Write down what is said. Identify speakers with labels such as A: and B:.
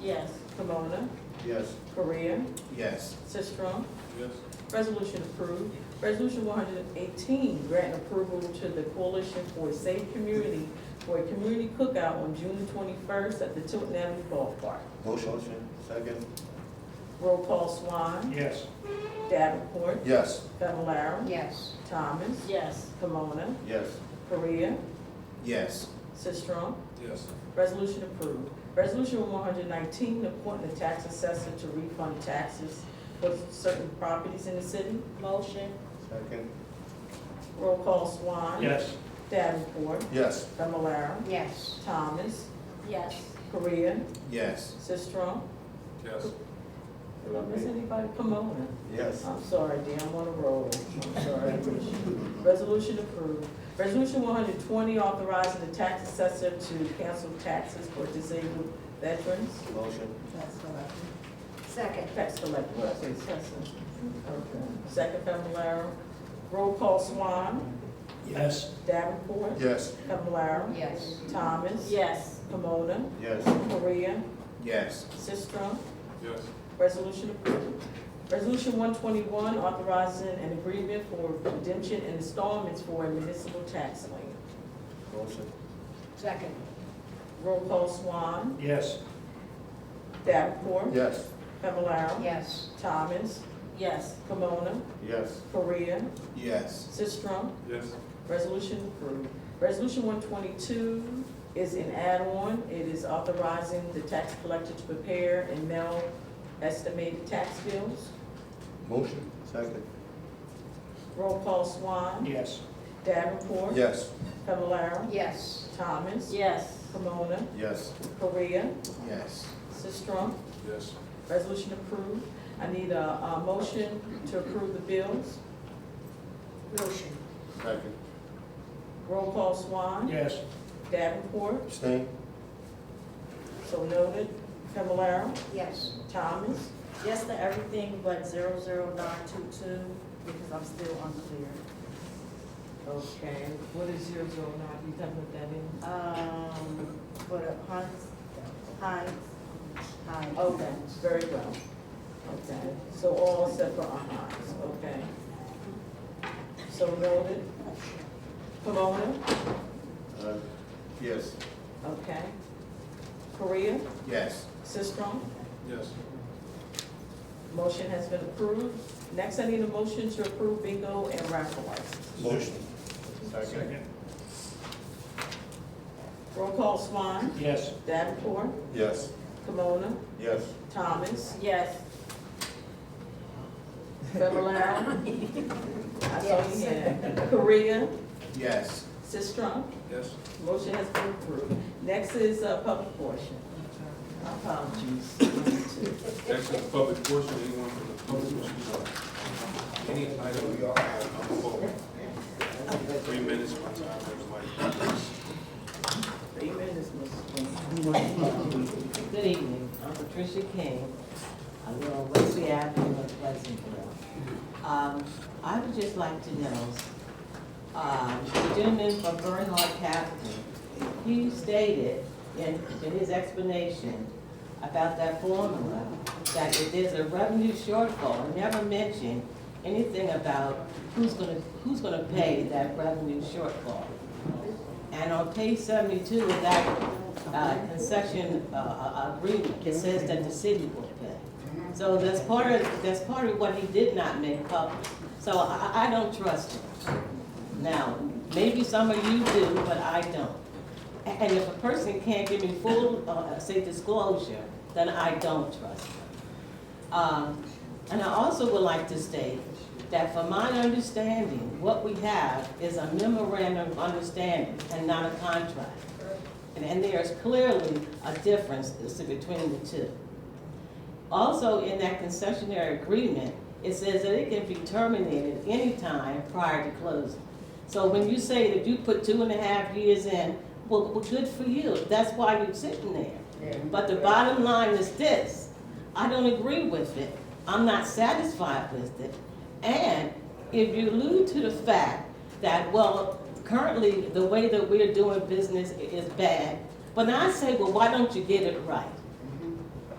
A: Yes.
B: Kimona,
C: Yes.
B: Korea,
C: Yes.
B: Sistrum.
C: Yes.
B: Resolution approved. Resolution one hundred and eighteen, granting approval to the Coalition for a Safe Community for a community cookout on June twenty-first at the Tilton Avenue Ballpark.
C: Motion. Second.
B: Roll call Swan,
D: Yes.
B: Davenport,
C: Yes.
B: Fablelaro,
E: yes,
B: Thomas,
A: Yes.
B: Kimona,
C: Yes.
B: Korea,
C: Yes.
B: Sistrum.
C: Yes.
B: Resolution approved. Resolution one hundred nineteen, appointing the tax assessor to refund taxes for certain properties in the city.
A: Motion.
C: Second.
B: Roll call Swan.
D: Yes.
B: Davenport,
C: Yes.
B: Fablelaro,
E: yes,
B: Thomas,
A: Yes.
B: Korea,
C: Yes.
B: Sistrum.
C: Yes.
B: Did I miss anybody? Pomona.
C: Yes.
B: I'm sorry, Dan, I'm on a roll. I'm sorry. Resolution approved. Resolution one hundred twenty, authorizing the tax assessor to cancel taxes for disabled veterans.
C: Motion.
A: That's correct.
E: second,
B: Tax collector, I say assessor. Okay. Second, Fablelaro. Roll call Swan,
D: Yes.
B: Davenport,
C: Yes.
B: Fablelaro,
E: yes,
B: Thomas,
A: Yes.
B: Pomona,
C: Yes.
B: Korea,
C: Yes.
B: Sistrum.
C: Yes.
B: Resolution approved. Resolution one twenty-one, authorizing an agreement for redemption and installments for a municipal tax lien.
C: Motion.
E: second,
B: Roll call Swan,
D: Yes.
B: Davenport,
C: Yes.
B: Fablelaro,
E: yes,
B: Thomas,
A: Yes.
B: Kimona,
C: Yes.
B: Korea,
C: Yes.
B: Sistrum.
C: Yes.
B: Resolution approved. Resolution one twenty-two is an add-on. It is authorizing the tax collector to prepare and mail estimated tax bills.
C: Motion. Second.
B: Roll call Swan,
D: Yes.
B: Davenport,
C: Yes.
B: Fablelaro,
E: yes,
B: Thomas,
A: Yes.
B: Kimona,
C: Yes.
B: Korea,
C: Yes.
B: Sistrum,
C: Yes.
B: resolution approved. I need a, a motion to approve the bills.
E: motion,
C: Second.
B: Roll call Swan.
D: Yes.
B: Davenport,
C: Abstain.
B: so noted. Fablelaro,
E: yes,
B: Thomas,
A: Yes to everything but zero zero nine two two, because I'm still unclear.
B: okay. What is zero zero nine, you can put that in?
A: Um, for the Heinz, Heinz, Heinz.
B: Okay, very well. Okay, so all except for ayes, okay. So noted. Pomona,
C: Uh, Yes.
B: okay. Korea,
C: Yes.
B: Sistrum,
C: Yes.
B: Motion has been approved. Next, I need a motion to approve bingo and raffle license.
C: Motion. Second.
B: Roll call Swan,
D: Yes.
B: Davenport,
C: Yes.
B: Kimona,
C: Yes.
B: Thomas,
A: Yes.
B: Fablelaro. I saw you had. Korea,
C: Yes.
B: Sistrum.
C: Yes.
B: Motion has been approved. Next is uh, public portion. Apologies.
F: Next is the public portion, anyone from the public wish to speak? Any item we all have on the floor? Three minutes, my time, everybody.
B: Three minutes, Mrs. Queen.
G: Good evening, I'm Patricia King. I live on Wesley Avenue in Pleasantville. Um, I would just like to know, um, the gentleman from Bernhard Capital, he stated in, in his explanation about that formula, that if there's a revenue shortfall, he never mentioned anything about who's gonna, who's gonna pay that revenue shortfall. And on page seventy-two of that uh, concession uh, uh, agreement, it says that the city will pay. So that's part of, that's part of what he did not make public. So I, I- I don't trust him. Now, maybe some of you do, but I don't. A- And if a person can't give me full, uh, say disclosure, then I don't trust them. Um, And I also would like to state that from my understanding, what we have is a memorandum of understanding and not a contract. And- And there is clearly a difference as to between the two. Also, in that concessionary agreement, it says that it can be terminated any time prior to closing. So when you say that you put two and a half years in, well, well, good for you, that's why you're sitting there. But the bottom line is this, I don't agree with it, I'm not satisfied with it. And if you allude to the fact that, well, currently, the way that we're doing business i- is bad, but I say, well, why don't you get it right?